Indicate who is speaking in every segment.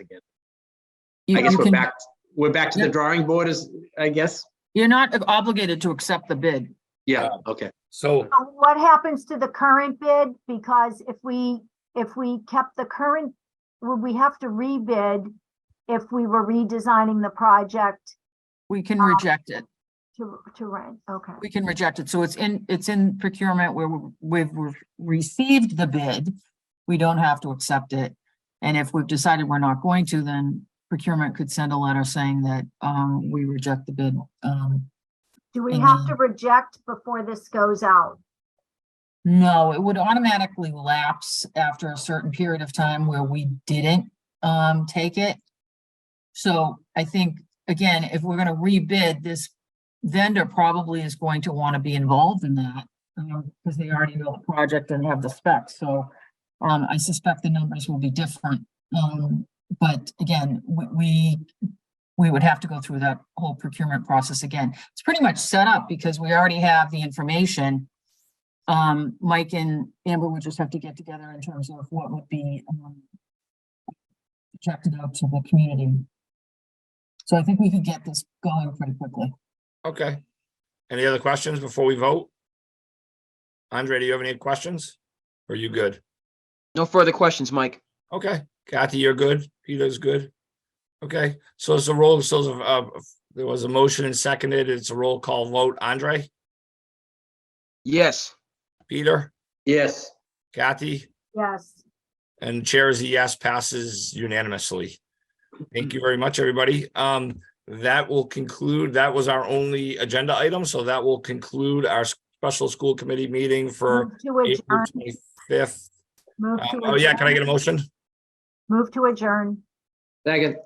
Speaker 1: again.
Speaker 2: You-
Speaker 1: I guess
Speaker 2: you
Speaker 1: we're
Speaker 2: can-
Speaker 1: back, we're back to the
Speaker 2: Yeah.
Speaker 1: drawing board is, I guess.
Speaker 2: You're not obligated to accept the bid.
Speaker 1: Yeah,
Speaker 3: Uh,
Speaker 1: okay.
Speaker 4: So,
Speaker 5: So What happens to the current bid? Because if we, if we kept the current, would we have to rebid if we were redesigning the project
Speaker 2: We can
Speaker 5: Um,
Speaker 2: reject it.
Speaker 5: to, to rent? Okay.
Speaker 2: We can reject it. So it's in, it's in procurement where we- we've re- received the bid. We don't have to accept it. And if we've decided we're not going to, then procurement could send a letter saying that um we reject the bid. Um,
Speaker 5: Do we have to reject before this goes out?
Speaker 2: no, it would automatically lapse after a certain period of time where we didn't um take it. So I think, again, if we're gonna rebid, this vendor probably is going to want to be involved in that. because they already know the project and have the specs, so um, I suspect the numbers will be different. Um, but again, we, we, we would have to go through that whole procurement process again. It's pretty much set up because we already have the information. Um, Mike and Amber would just have to get together in terms of what would be, um, projected out to the community. So I think we could get this going pretty quickly.
Speaker 4: okay. Any other questions before we vote? Andre, do you have any questions? Are you good?
Speaker 3: No further questions, Mike.
Speaker 4: Okay, Kathy, you're good. Peter's good. Okay, so it's a roll, so uh, there was a motion and seconded. It's a roll call vote. Andre,
Speaker 3: Yes,
Speaker 4: Peter,
Speaker 1: Yes,
Speaker 4: Kathy,
Speaker 5: Yes.
Speaker 4: and chair is a yes, passes unanimously. Thank you very much, everybody. Um, that will conclude, that was our only agenda item, so that will conclude our special school committee meeting for
Speaker 5: Move to
Speaker 4: April
Speaker 5: adjourn.
Speaker 4: twenty-fifth.
Speaker 5: Move to
Speaker 4: Oh, yeah, can I get a
Speaker 5: adjourn.
Speaker 4: motion?
Speaker 5: Move to adjourn.
Speaker 1: second,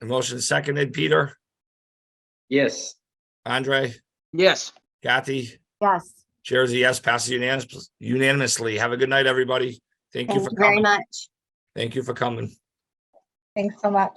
Speaker 4: A motion seconded, Peter,
Speaker 1: yes.
Speaker 4: Andre,
Speaker 3: yes.
Speaker 4: Kathy,
Speaker 5: Yes.
Speaker 4: chairs a yes, passes unanimous- unanimously. Have a good night, everybody. Thank
Speaker 6: Thank
Speaker 4: you for
Speaker 6: you very
Speaker 4: coming.
Speaker 6: much.
Speaker 4: Thank you for coming.
Speaker 6: Thanks so much.